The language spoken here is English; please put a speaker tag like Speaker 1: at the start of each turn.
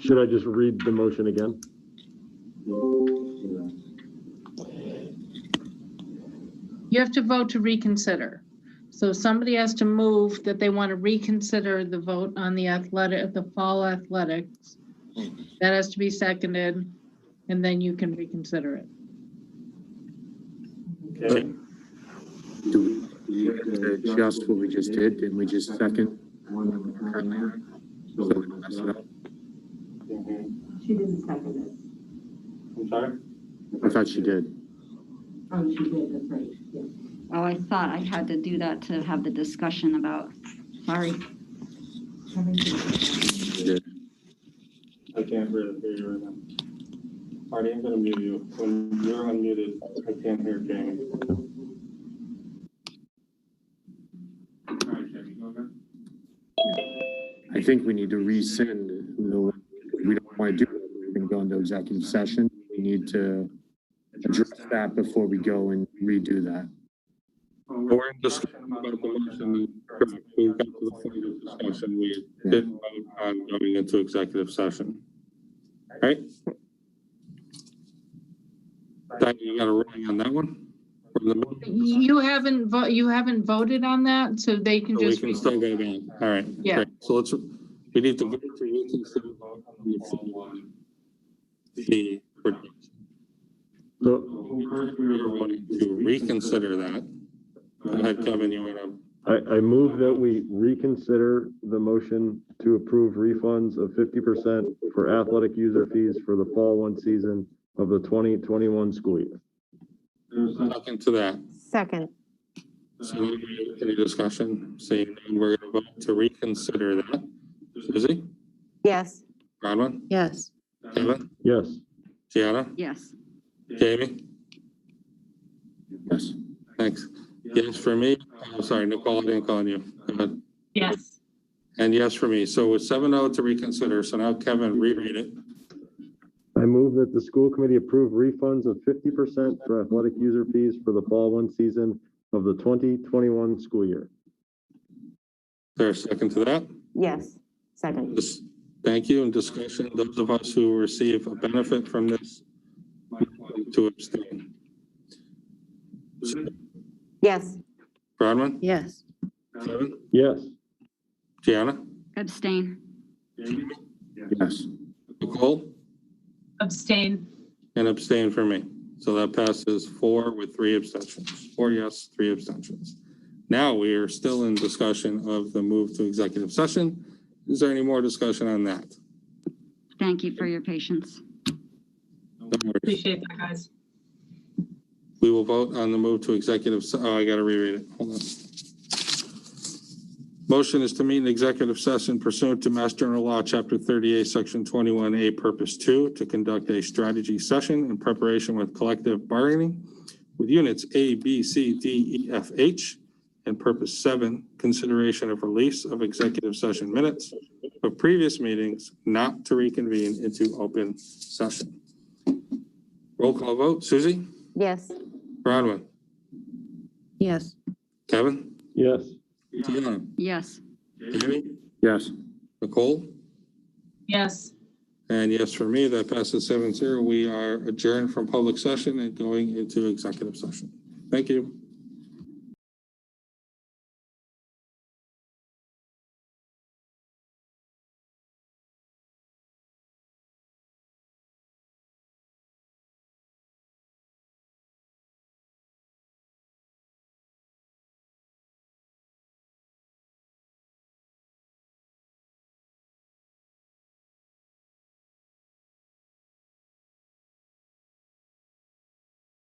Speaker 1: Should I just read the motion again?
Speaker 2: Uh,
Speaker 3: You have to vote to reconsider. So somebody has to move that they want to reconsider the vote on the athletic, the fall athletics. That has to be seconded, and then you can reconsider it.
Speaker 4: Okay.
Speaker 2: Do we adjust what we just did? Didn't we just second earlier? So we don't mess it up.
Speaker 4: I'm
Speaker 5: She didn't second it.
Speaker 4: Mm-hmm. sorry?
Speaker 2: I thought she did.
Speaker 5: Oh, she did, that's right, yeah.
Speaker 6: Oh, I thought I had to do that to have the discussion about, sorry.
Speaker 2: She did.
Speaker 4: I can't really hear you right now. Marty, I'm gonna mute you. When you're unmuted, I can't hear Jamie.
Speaker 2: I think we need to rescind. the- We don't want to do, it. we're going to go into executive session. We need to address that before we go and redo that.
Speaker 7: We're in discussion about the motion. We got to the point of discussion. We didn't vote on going into executive session. Right? Diane, you got a ruling on that one? From the motion?
Speaker 3: You haven't, vo- you haven't voted on that, so they can
Speaker 7: So we
Speaker 3: just.
Speaker 7: can still go back. All right.
Speaker 3: Yeah.
Speaker 7: great. So let's, we need to vote to reconsider vote on the full one. The.
Speaker 1: So
Speaker 7: First, we were voting to reconsider that. Go ahead, Kevin, you want to?
Speaker 1: I, I move that we reconsider the motion to approve refunds of fifty percent for athletic user fees for the fall one season of the twenty twenty-one school year.
Speaker 7: There's nothing to that.
Speaker 8: Second,
Speaker 7: So any- any discussion, seeing none, we're gonna vote to reconsider that. Suzie,
Speaker 8: yes.
Speaker 7: Bronwyn,
Speaker 8: Yes.
Speaker 7: Kevin,
Speaker 1: Yes,
Speaker 7: Gianna,
Speaker 6: Yes,
Speaker 7: Jamie,
Speaker 2: Yes.
Speaker 7: thanks. Yes for me, I'm sorry, Nicole, I didn't call on you. Go ahead.
Speaker 3: Yes.
Speaker 7: And yes for me, so with seven oh to reconsider, so now Kevin, reread it.
Speaker 1: I move that the school committee approve refunds of fifty percent for athletic user fees for the fall one season of the twenty twenty-one school year.
Speaker 7: There's a second to that.
Speaker 8: Yes, second,
Speaker 7: This- Thank you, and discussion, those of us who receive a benefit from this, to abstain.
Speaker 8: yes.
Speaker 7: Bronwyn,
Speaker 8: Yes.
Speaker 7: Kevin,
Speaker 1: Yes,
Speaker 7: Gianna,
Speaker 6: abstain.
Speaker 7: Jamie,
Speaker 2: Yes.
Speaker 7: Nicole?
Speaker 3: Abstain.
Speaker 7: And abstain for me. So that passes four with three abstentions, four yes, three abstentions. Now we are still in discussion of the move to executive session. Is there any more discussion on that?
Speaker 6: Thank you for your patience.
Speaker 7: No worries. We will vote on the move to executive, se- oh, I gotta reread it, hold on. Motion is to meet an executive session pursuant to Mass General Law, Chapter 38, Section 21A, Purpose 2, to conduct a strategy session in preparation with collective bargaining with units A, B, C, D, E, F, H, and Purpose 7, consideration of release of executive session minutes of previous meetings not to reconvene into open session. Roll call vote, Suzie?
Speaker 8: Yes.
Speaker 7: Bronwyn,
Speaker 8: Yes.
Speaker 7: Kevin,
Speaker 1: yes,
Speaker 7: Deanna,
Speaker 6: Yes,
Speaker 7: Jamie,
Speaker 2: Yes.
Speaker 7: Nicole,
Speaker 3: Yes.
Speaker 7: and yes for me, that passes seven zero. We are adjourned from public session and going into executive session. Thank you.